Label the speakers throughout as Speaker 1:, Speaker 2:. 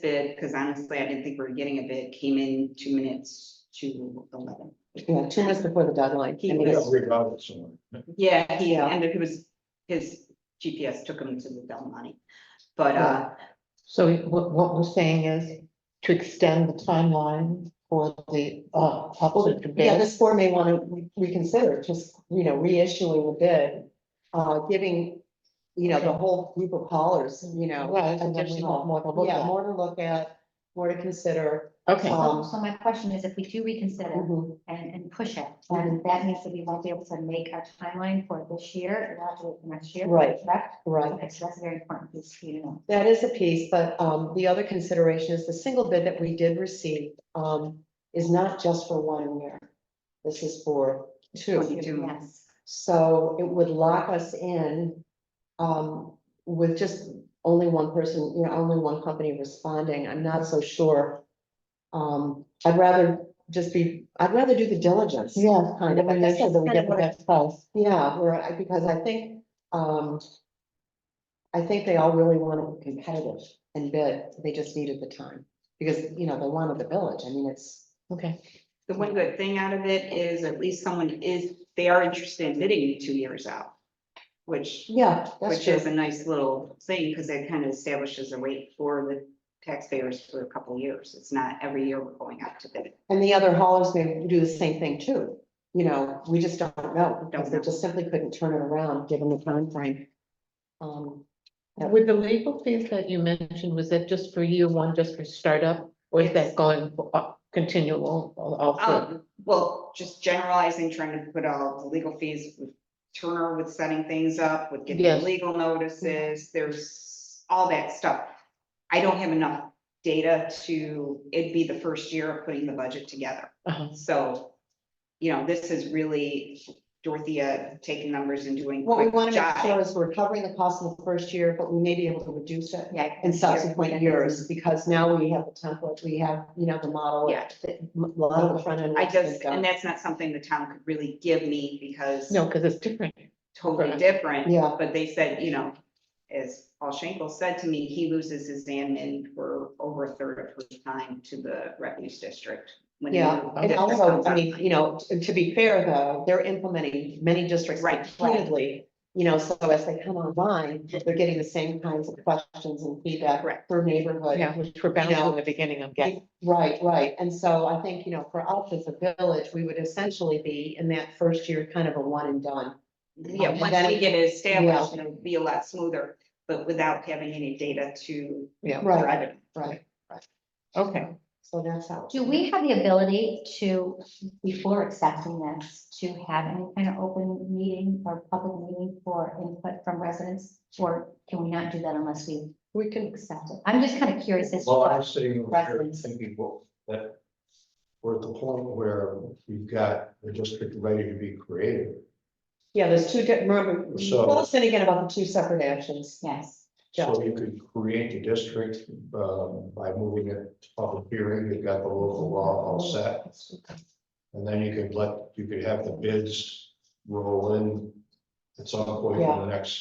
Speaker 1: bid, because honestly, I didn't think we were getting a bid, came in two minutes to eleven.
Speaker 2: Yeah, two minutes before the deadline.
Speaker 1: He
Speaker 2: I mean,
Speaker 1: was-
Speaker 2: it's-
Speaker 3: Regardless, someone.
Speaker 1: Yeah, he,
Speaker 2: Yeah.
Speaker 1: and it was, his GPS took him to the Del Monte. But, uh,
Speaker 2: So what, what we're saying is to extend the timeline for the, uh, public to bid.
Speaker 4: Yeah, this board may want to reconsider, just, you know, reissuing the bid, uh, giving, you know, the whole group of callers, you know,
Speaker 2: Right, and then we have
Speaker 4: additional,
Speaker 2: more to look
Speaker 4: yeah,
Speaker 2: at.
Speaker 4: more to look at, more to
Speaker 2: Oh,
Speaker 4: consider.
Speaker 2: Okay,
Speaker 4: Um,
Speaker 5: So so my question is, if we do reconsider
Speaker 2: Mm-hmm.
Speaker 4: mhm.
Speaker 5: and, and push it, then that means that we won't be able to make our timeline for this year, we'll have to wait for next year.
Speaker 4: Right.
Speaker 5: Correct?
Speaker 4: Right,
Speaker 5: Okay, so that's a very important piece for you to know.
Speaker 4: that is a piece, but um, the other consideration is the single bid that we did receive um, is not just for one year. This is for two.
Speaker 1: Two.
Speaker 5: Yes.
Speaker 4: So it would lock us in um, with just only one person, you know, only one company responding. I'm not so sure. Um, I'd rather just be, I'd rather do the diligence.
Speaker 2: yeah, kind
Speaker 4: Kind of,
Speaker 2: of,
Speaker 4: I
Speaker 2: make
Speaker 4: guess
Speaker 2: sure
Speaker 4: that's
Speaker 2: that we
Speaker 4: kind of
Speaker 2: get the
Speaker 4: what I-
Speaker 2: best price.
Speaker 4: Yeah, where I, because I think, um, I think they all really want to be competitive and bid. They just needed the time. Because, you know, they wanted the village. I mean, it's,
Speaker 2: Okay,
Speaker 1: the one good thing out of it is at least someone is, they are interested in bidding two years out. Which
Speaker 4: yeah, that's
Speaker 1: Which
Speaker 4: true.
Speaker 1: is a nice little thing, because it kind of establishes a rate for the taxpayers for a couple of years. It's not every year we're going out to bid.
Speaker 4: And the other haulers may do the same thing too. You know, we just don't know, because they just simply couldn't turn it around, given the timeframe. Um, Yeah.
Speaker 2: with the legal fees that you mentioned, was that just for year one, just for startup? Or is that going for, uh, continual also?
Speaker 1: Um, well, just generalizing, trying to put all the legal fees, with Turner with setting things up, with getting the
Speaker 2: Yes.
Speaker 1: legal notices, there's all that stuff. I don't have enough data to, it'd be the first year of putting the budget together.
Speaker 2: Uh-huh.
Speaker 1: So, you know, this is really Dorothea taking numbers and doing.
Speaker 4: what we
Speaker 1: quick
Speaker 4: want to make
Speaker 1: jobs.
Speaker 4: sure is we're covering the cost in the first year, but we may be able to reduce it
Speaker 5: Yeah.
Speaker 4: in subsequent years, because now we have the template, we have, you know, the model.
Speaker 1: Yeah.
Speaker 4: the- A lot of the front end.
Speaker 1: I
Speaker 4: work's been
Speaker 1: just,
Speaker 4: done.
Speaker 1: and that's not something the town could really give me because
Speaker 2: No, because it's different.
Speaker 1: totally
Speaker 2: Correct.
Speaker 1: different.
Speaker 4: Yeah.
Speaker 1: But they said, you know, as Paul Schenkel said to me, he loses his admin for over a third of his time to the refuse district. when the
Speaker 4: Yeah,
Speaker 1: new
Speaker 4: and
Speaker 1: district
Speaker 4: also,
Speaker 1: comes
Speaker 4: I
Speaker 1: on.
Speaker 4: mean, you know, t- to be fair, though, they're implementing many districts
Speaker 1: Right.
Speaker 4: repeatedly. You know, so as they come online, they're getting the same kinds of questions and feedback
Speaker 1: Correct.
Speaker 4: for neighborhood.
Speaker 2: Yeah, which we're bouncing in the beginning, I'm getting.
Speaker 4: Right, right. And so I think, you know, for us as a village, we would essentially be in that first year, kind of a one and done.
Speaker 1: Yeah,
Speaker 4: Um, and
Speaker 1: once
Speaker 4: then-
Speaker 1: we get it established, it'll be a lot smoother, but without having any data to
Speaker 2: Yeah,
Speaker 4: Right.
Speaker 1: drive it.
Speaker 4: Right.
Speaker 2: okay.
Speaker 4: So that's how.
Speaker 5: Do we have the ability to, before accepting this, to have any kind of open meeting or public meeting for input from residents? Or can we not do that unless we
Speaker 4: We can,
Speaker 5: accept it? I'm just kind of curious as to
Speaker 3: Well,
Speaker 5: what.
Speaker 3: I'm sitting over here
Speaker 5: Reference.
Speaker 3: thinking, well, that we're at the point where we've got the district ready to be created.
Speaker 4: yeah, there's two, di- remember,
Speaker 3: So-
Speaker 4: tell us in again about the two separate actions.
Speaker 5: Yes,
Speaker 3: So you could create the district uh, by moving it to public hearing, you've got the local law all set. And then you could let, you could have the bids roll in at some point in the next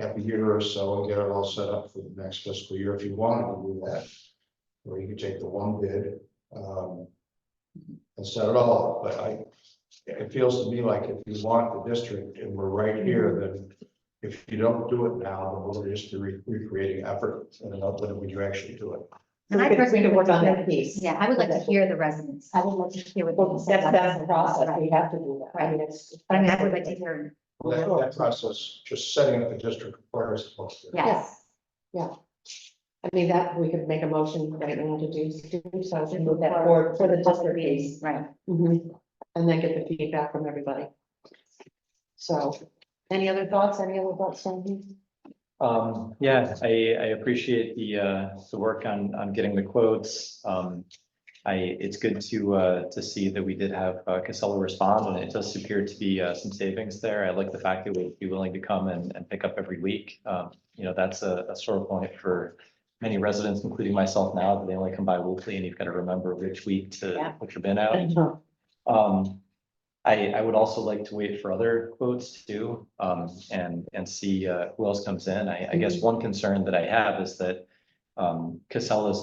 Speaker 3: half a year or so and get it all set up for the next fiscal year if you wanted to do that. Or you could take the one bid um, and set it all, up. but I, it feels to me like if you want the district and we're right here, then if you don't do it now, then we're just re- recreating effort and not when you actually do it.
Speaker 4: So we
Speaker 5: I
Speaker 4: could- we
Speaker 5: personally
Speaker 4: could work
Speaker 5: would
Speaker 4: on
Speaker 5: like-
Speaker 4: that piece.
Speaker 5: yeah, I would like to
Speaker 4: Okay.
Speaker 5: hear the residents. I would like to hear what.
Speaker 4: Well,
Speaker 5: they say
Speaker 4: that's,
Speaker 5: about
Speaker 4: that's
Speaker 5: this.
Speaker 4: the process, we have to do that, I
Speaker 5: Right.
Speaker 4: mean, it's.
Speaker 5: But I mean, I would like to hear,
Speaker 3: Well, That, that process, just setting up the district requires. a public hearing.
Speaker 5: yes.
Speaker 4: I mean, that, we could make a motion right now to do, do so, to move that
Speaker 5: Or-
Speaker 4: forward for the
Speaker 5: public
Speaker 4: district
Speaker 5: meetings,
Speaker 4: piece.
Speaker 5: Right.
Speaker 4: Mhm. And then get the feedback from everybody. So, any other thoughts, any other thoughts, Sandy?
Speaker 6: Um, yeah, I, I appreciate the, uh, the work on, on getting the quotes. Um, I, it's good to, uh, to see that we did have uh, Casella respond and it does appear to be, uh, some savings there. I like the fact that we'd be willing to come and, and pick up every week. Um, you know, that's a, a sore point for many residents, including myself now, that they only come by weekly and you've got to remember which week
Speaker 5: Yeah.
Speaker 6: to put your bin out. Um, I, I would also like to wait for other quotes too, um, and, and see, uh, who else comes in. I, I guess one concern that I have is that, um, Casella's